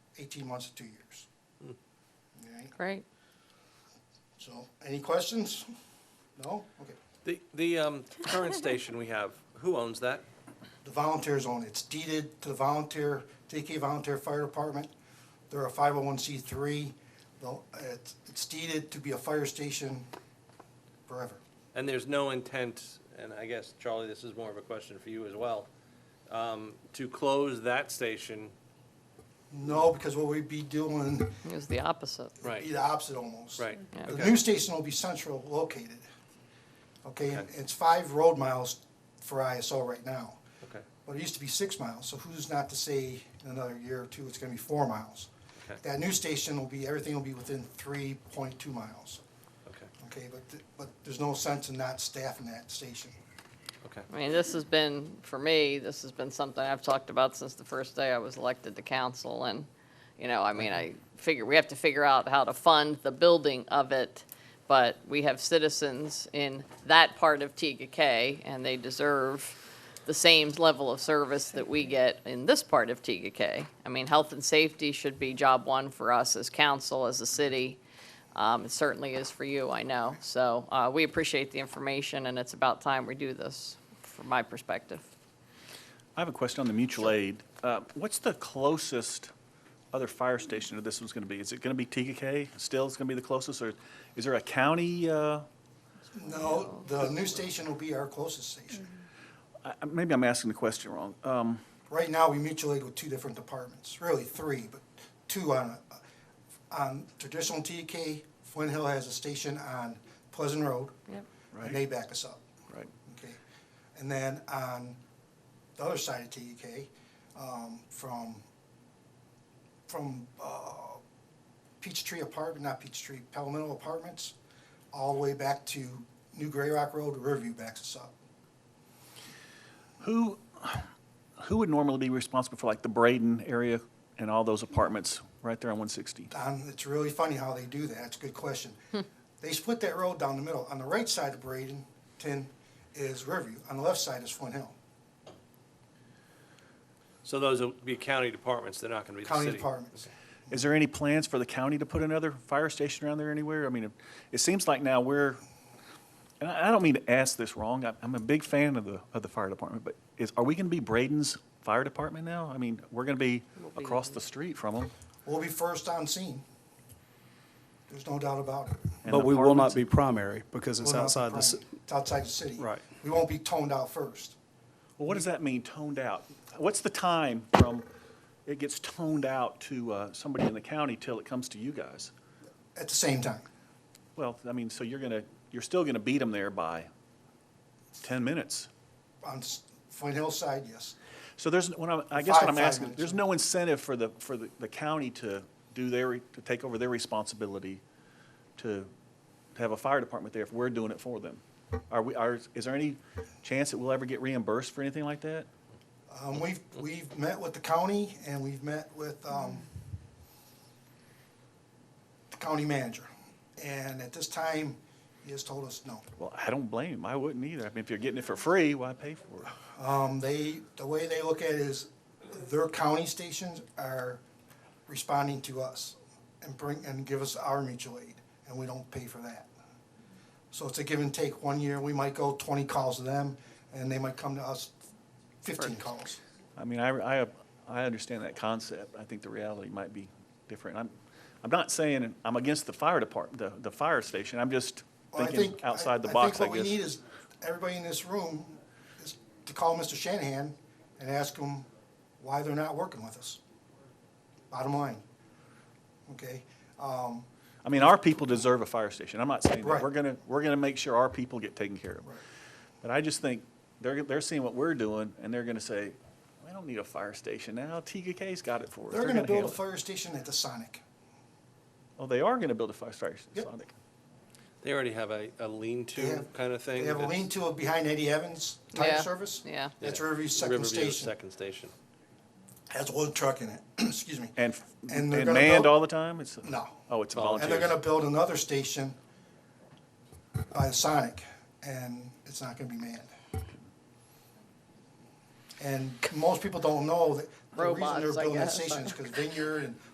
eighteen months to two years. Okay, Great. so, any questions? No? Okay. The, the um, current station we have, who owns that? The volunteers own it. It's deeded to the volunteer, TK Volunteer Fire Department. They're a five oh one C three. It's, it's deeded to be a fire station forever. And there's no intent, and I guess, Charlie, this is more of a question for you as well, um, to close that station, No, because what we'd be doing It was the opposite. would Right. be the opposite almost. right? Yeah. The okay. new station will be central located. Okay, and Okay. it's five road miles for ISO right now. Okay, But it used to be six miles, so who's not to say in another year or two, it's gonna be four miles? Okay. That new station will be, everything will be within three point two miles, okay, okay? But, th- but there's no sense in not staffing that station. okay. I mean, this has been, for me, this has been something I've talked about since the first day I was elected to council. And, you know, I mean, I figure, we have to figure out how to fund the building of it. But we have citizens in that part of TGK and they deserve the same level of service that we get in this part of TGK. I mean, health and safety should be job one for us as council, as a city. Um, It certainly is for you, I know. So uh, we appreciate the information, and it's about time we do this, from my perspective. I have a question on the mutual aid. Uh, What's the closest other fire station to this one's going to be? Is it going to be TKK still it's going to be the closest, or is there a county? uh, No, the new station will be our closest station. I- I- Maybe I'm asking the question wrong. Um, Right now, we mutual aid with two different departments, really three, but two on, on traditional TK. Flint Hill has a station on Pleasant Road, Yep. and they back us up. Right. Okay, and then on the other side of TEK, um, from, from, uh, Peachtree Apartment, not Peachtree, Palmetto Apartments, all the way back to New Gray Rock Road, Riverview backs us up. Who, who would normally be responsible for like the Braden area and all those apartments right there on 160? Um, it's really funny how they do that, it's a good question. They split that road down the middle, on the right side of Bradenton is Riverview, on the left side is Flint Hill. So those will be county departments, they're not gonna be the city? County departments. Is there any plans for the county to put another fire station around there anywhere? I mean, it- it seems like now we're, and I I don't mean to ask this wrong, I- I'm a big fan of the, of the fire department, but is, are we going to be Braden's fire department now? I mean, we're going to be be. across the street from them. We'll be first on scene. There's no doubt about it. But we will not be primary because it's outside the, s- It's outside the city. Right. We won't be toned out first. Well, what does that mean, toned out? What's the time from it gets toned out to uh, somebody in the county till it comes to you guys? At the same time, Well, I mean, so you're going to, you're still going to beat them there by 10 minutes. on S- Flint Hill side, yes. So there's, when I'm, I guess Five- what I'm five asking, minutes. there's no incentive for the, for the, the county to do their, to take over their responsibility to, to have a fire department there if we're doing it for them. Are we, are, is there any chance that we'll ever get reimbursed for anything like that? Um, we've, we've met with the county and we've met with, um, the county manager. And at this time, he has told us no. Well, I don't blame him. I wouldn't either. I mean, if you're getting it for free, why pay for it? Um, they, the way they look at it is their county stations are responding to us and bring, and give us our mutual aid, and we don't pay for that. So it's a give and take. One year, we might go twenty calls to them, and they might come to us fifteen calls. I mean, I, I, I understand that concept. I think the reality might be different. I'm, I'm not saying I'm against the fire department, the, the fire station. I'm just Well, I thinking think- outside the box, I guess. think what we need is, everybody in this room, is to call Mr. Shanahan and ask him why they're not working with us. Bottom line. Okay? Um, I mean, our people deserve a fire station. I'm not saying Right. that. We're gonna, we're gonna make sure our people get taken care of. Right. But I just think they're, they're seeing what we're doing and they're gonna say, we don't need a fire station now. TKK's got it for us. they're gonna build a handle it." fire station at the Sonic. Oh, they are gonna build a fire station. Yep. Sonic. They already have a, They a lean-to have- kind of thing? They have a that's- lean-to behind Eddie Evans type Yeah, service. yeah. That's Yeah, Riverview's second Riverview's station. second station. Has one truck in it, excuse me. And, f- And and they're gonna manned build- all the time? It's, No. oh, it's Volunteer. volunteer. And they're gonna build another station by the Sonic, and it's not gonna be manned. And most people don't know that the reason Robots, they're I building that guess. station is because Vineyard and